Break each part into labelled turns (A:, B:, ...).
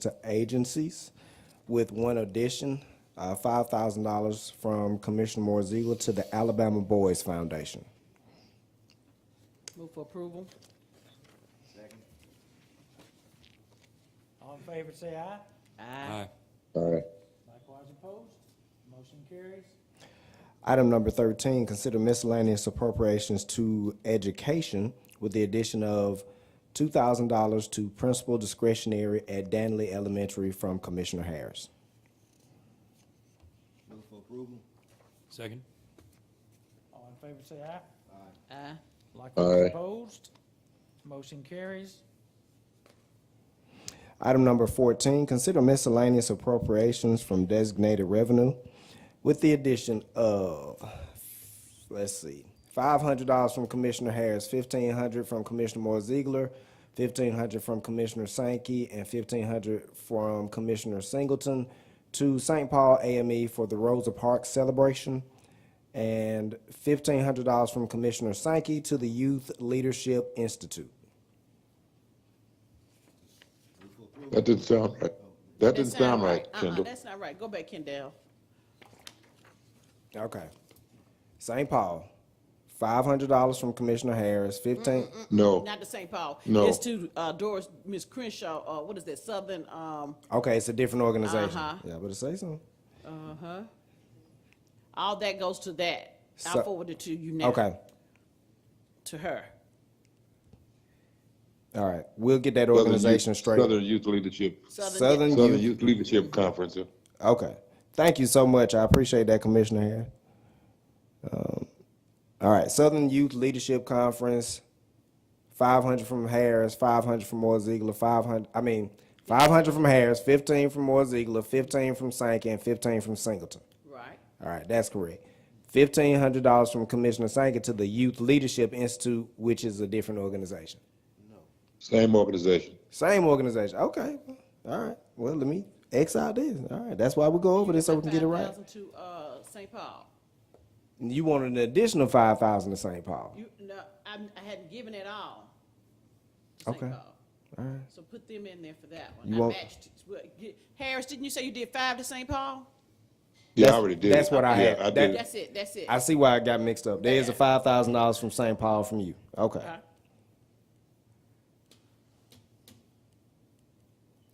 A: to agencies with one addition, uh, $5,000 from Commissioner Moore Ziegler to the Alabama Boys Foundation.
B: Move for approval.
C: All in favor, say aye.
B: Aye.
A: Aye.
C: Likewise opposed. Motion carries.
A: Item number 13, consider miscellaneous appropriations to education with the addition of $2,000 to principal discretionary at Danley Elementary from Commissioner Harris.
D: Second.
C: All in favor, say aye.
B: Aye.
C: Likewise opposed. Motion carries.
A: Item number 14, consider miscellaneous appropriations from designated revenue with the addition of, let's see, $500 from Commissioner Harris, $1,500 from Commissioner Moore Ziegler, $1,500 from Commissioner Sankey, and $1,500 from Commissioner Singleton to St. Paul AME for the Rosa Parks celebration, and $1,500 from Commissioner Sankey to the Youth Leadership Institute.
E: That didn't sound right. That didn't sound right,
B: Uh-uh,
E: Kendall.
B: that's not right. Go back, Kendall.
A: Okay. St. Paul, five hundred dollars from Commissioner Harris, fifteen,
E: No,
B: Not to St. Paul.
E: No.
B: It's to uh, Doris, Miss Crenshaw, uh, what is that, Southern, um,
A: okay, it's a different organization.
B: Uh-huh.
A: Yeah, but it say so.
B: uh-huh. All that goes to that.
A: So-
B: I'll forward it to you now.
A: Okay,
B: To her.
A: all right, we'll get that
E: Southern
A: organization
E: Youth,
A: straight.
E: Southern Youth Leadership,
A: Southern
E: Southern
A: Youth,
E: Youth Leadership Conference. uh,
A: okay. Thank you so much, I appreciate that, Commissioner Harris. Um, All right, Southern Youth Leadership Conference, five hundred from Harris, five hundred from Moore Ziegler, five hundred, I mean, five hundred from Harris, fifteen from Moore Ziegler, fifteen from Sankey, and fifteen from Singleton.
B: Right.
A: All right, that's correct. Fifteen hundred dollars from Commissioner Sankey to the Youth Leadership Institute, which is a different organization.
E: Same organization.
A: Same organization, okay, all right, well, let me X out this, all right, that's why we go over this, so we can get it right.
B: $5,000 To, uh, St. Paul.
A: You want an additional five thousand to St. Paul,
B: You, no, I'm, I hadn't given it all. to St.
A: Okay.
B: Paul. So put them in there for that one.
A: You
B: I
A: want-
B: matched, it. Well, you- Harris, didn't you say you did five to St. Paul?
E: Yeah, I
A: That's-
E: already did.
A: that's
E: it.
A: what I
E: Yeah,
A: had.
E: did it.
B: That's it, that's it.
A: I see why I got mixed up, there's a
B: Yeah.
A: five thousand dollars from St. Paul from you, okay.
B: Okay.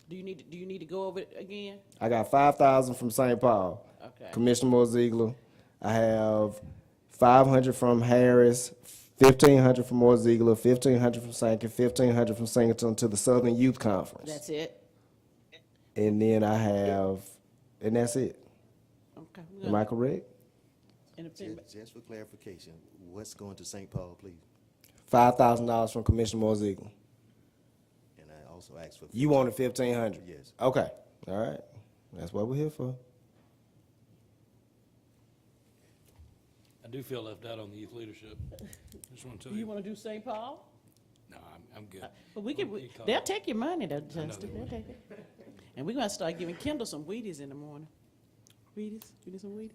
B: Do you need, to- do you need to go over it again?
A: I got five thousand from St. Paul.
B: Okay.
A: Commissioner Moore Ziegler. I have five hundred from Harris, fifteen hundred from Moore Ziegler, fifteen hundred from Sankey, fifteen hundred from Singleton to the Southern Youth Conference.
B: That's it?
A: And then I have, and that's it.
B: Okay. we're
A: Am
B: gonna-
A: I correct?
B: and if
F: Ju-
B: anybody-
F: Just for clarification, what's going to St. Paul, please?
A: Five thousand dollars from Commissioner Moore Ziegler.
F: And I also asked for.
A: You wanted fifteen hundred?
F: Yes.
A: Okay, all right. That's what we're here for.
D: I do feel left out on the youth leadership. Just want to tell
B: You
D: you.
B: want to do St. Paul?
D: No, I'm, I'm good.
B: But we
D: Well, you
B: could,
D: call
B: they'll
D: it.
B: take your money though,
D: they
B: Justin. They'll
D: will.
B: take it. And we're gonna start giving Kendall some Wheaties in the morning. Wheaties? You need some Wheaties?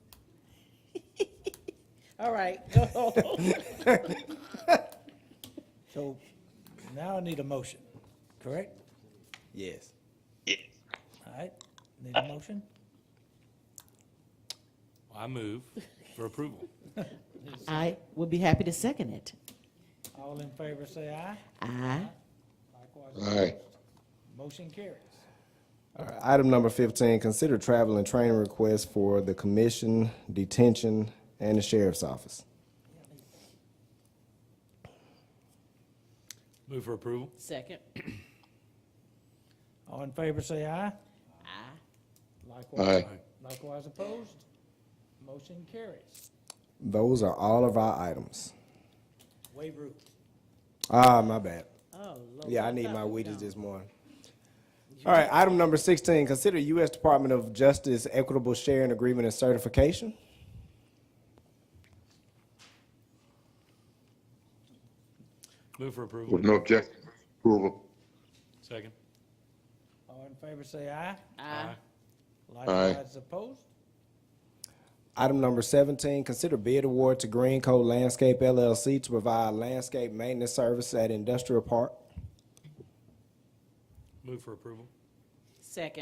B: All right, go on.
C: So now I need a motion, correct?
A: Yes.
C: All right, need a motion?
D: I move for approval.
B: I would be happy to second it.
C: All in favor, say aye.
B: Aye.
C: Likewise,
E: All right.
C: motion carries.
A: All right, Item number fifteen, consider travel and training requests for the commission, detention, and the sheriff's office.
D: Move for approval.
B: Second.
C: All in favor, say aye.
B: Aye.
C: Likewise,
E: Aye.
C: likewise opposed. Motion carries.
A: Those are all of our items.
C: Waive rules.
A: Ah, my bad.
B: Oh, Lord.
A: Yeah, I need my
B: thought we
A: Wheaties
B: done.
A: this morning. All right, item number sixteen, consider U.S. Department of Justice Equitable Sharing Agreement and Certification.
D: Move for approval.
E: With no objection, approval.
D: Second.
C: All in favor, say aye.
B: Aye.
C: Likewise opposed.
A: Item number seventeen, consider bid award to Green Coat Landscape LLC to provide landscape maintenance service at Industrial Park.
D: Move for approval.
B: Second.